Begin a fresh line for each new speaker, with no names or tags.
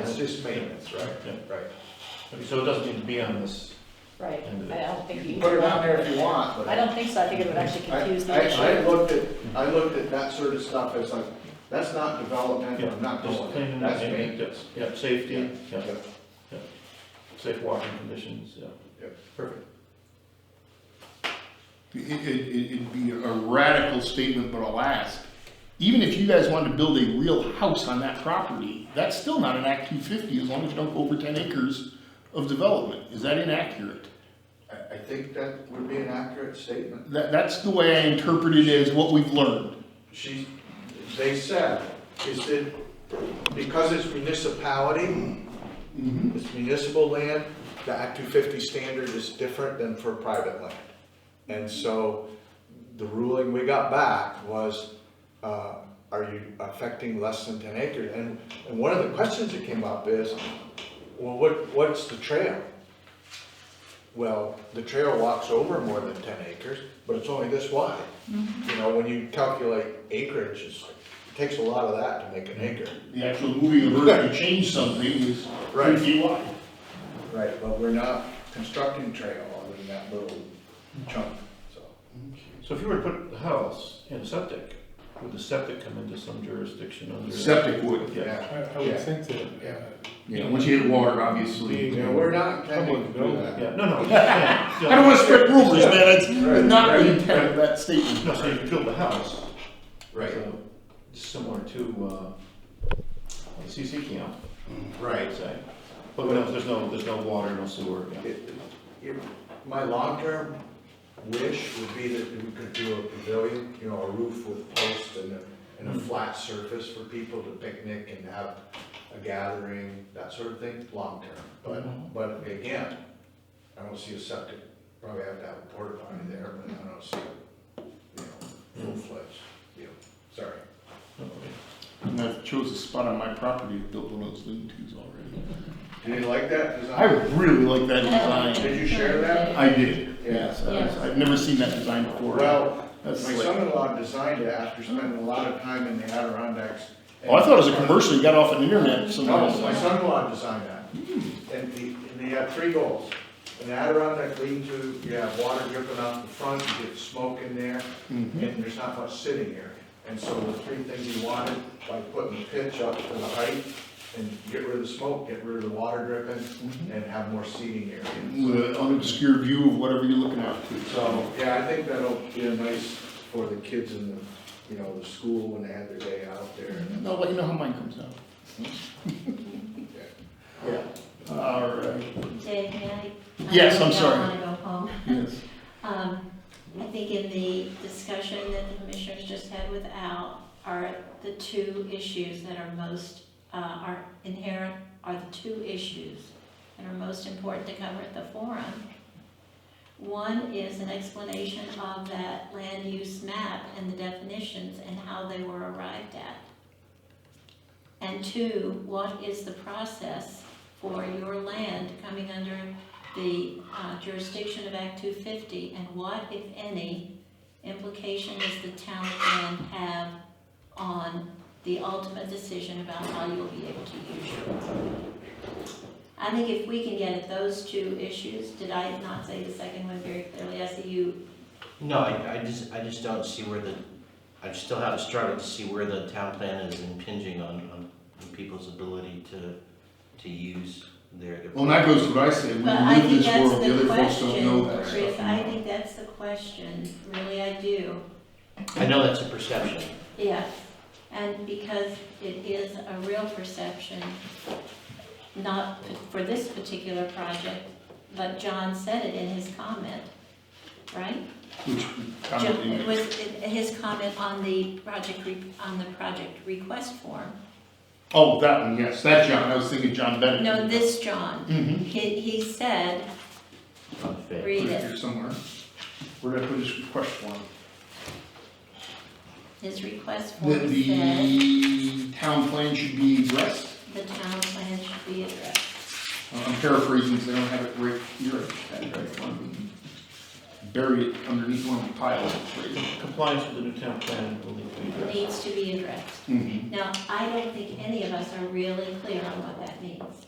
It's just maintenance, right?
Yeah.
Right.
Okay, So it doesn't need to be on this.
Right, I don't think
You
you.
can put it on there if you want, but.
I don't think so, I think it would actually
I-
confuse the issue.
Actually, I looked at, I looked at that sort of stuff as like, that's not development, I'm not
Just
doing
cleaning
it,
and
that's
maintaining,
maintenance.
Yeah, safety,
Yeah.
yeah, safe walking conditions, yeah.
Yep.
Perfect.
It, it, it- it'd be a radical statement, but alas, even if you guys wanted to build a real house on that property, that's still not an Act two fifty, as long as you don't go over ten acres of development. Is that inaccurate?
I, I think that would be an accurate statement.
That, that's the way I interpret it as what we've learned.
She, they said, is that because it's municipality, it's municipal land, the Act two fifty standard is different than for private land. And so the ruling we got back was, uh, are you affecting less than ten acres? And, and one of the questions that came up is, well, what, what's the trail? Well, the trail walks over more than ten acres, but it's only this wide. You know, when you calculate acreage, it's like, it takes a lot of that to make an acre.
The actual moving of earth to change something is
Right.
three feet wide.
Right, but we're not constructing trail other than that little chunk, so.
So if you were to put the house in septic, would the septic come into some jurisdiction under?
Septic would.
Yeah.
Yeah,
I, I
Yeah.
would think that,
Yeah.
uh,
Yeah, once you hit water, obviously.
you know, we're not intending to do that.
Yeah, no, no, I'm just saying, so-
I don't wanna spread rumors, man, that's
Right,
not
right,
the intent of that
No, so you
statement.
could build a house.
Right.
so Similar to, uh, the CC camp,
Right.
I'd say. But no, there's no, there's no water, no sewer, yeah.
It- it- My long-term wish would be that we could do a pavilion, you know, a roof with posts and a, and
Hmm.
a flat surface for people to picnic and have a gathering, that sort of thing, long-term.
Hmm.
But, but again, I don't see a septic, probably have to have a porta potty there, but I don't see, you
Hmm.
know, full-fledged, you know, sorry.
Okay.
And I've chose a spot on my property to build one of those lean tos already.
You didn't like that
I
design?
really like that
Oh.
design.
Did you share that?
I did,
Yeah.
yes. I was-
Yeah.
I've never seen that design before.
Well, my
That's slick.
son-in-law designed it after spending a lot of time in the Adirondacks.
Oh, I thought it was a commercial you got off an internet somewhere.
No, my son-in-law designed that. And the, and they have three goals. An Adirondack lean-to, you have water dripping off the front, you get smoke in there, and there's not much sitting area. And so the three things he wanted, like putting the pitch up to the height and get rid of the smoke, get rid of the water dripping, and have more seating area.
With an obscure view of whatever you're looking at. too.
So, yeah, I think that'll be a nice for the kids in the, you know, the school when they have their day out there.
I'll let you know how mine comes out.
Yeah.
All right.
Dave, may I?
Yes, I'm sorry.
I don't want to go home.
Yes.
Um, I think in the discussion that the commissioners just had with Al are the two issues that are most, uh, are inherent, are the two issues that are most important to cover at the forum. One is an explanation of that land use map and the definitions and how they were arrived at. And two, what is the process for your land coming under the uh, jurisdiction of Act 250, and what, if any, implication does the town plan have on the ultimate decision about how you'll be able to use your property? I think if we can get at those two issues, did I not say the second one very clearly? I see you,
No, I, I just, I just don't see where the, I still have a struggle to see where the town plan is impinging on, on people's ability to, to use their. their-
Well, and that goes to what I say. We
but I
live
think
this
that's
world, the
the
other folks don't know
question,
that
Chris, I
stuff.
think that's the question, really I do.
I know that's a perception.
Yes, and because it is a real perception, not for this particular project, but John said it in his comment, right?
Which
John-
comedy
It
makes.
was in his comment on the project, re- on the project request form.
Oh, that one, yes, that John, I was thinking John Bennett.
No, this John,
Mm-hmm.
he, he said,
Unfair.
read
Right
it,
here somewhere. Where did I put this request form?
his request form
That
said,
the town plan should be addressed. Uh,
the town plan should be addressed.
I'm paraphrasing, because I don't have it right here. I just had it right in front of me. bury it underneath one of the piles. right?
Compliance with the new town plan will need to be addressed.
needs to be addressed.
Mhm.
Now, I don't think any of us are really clear on what that means.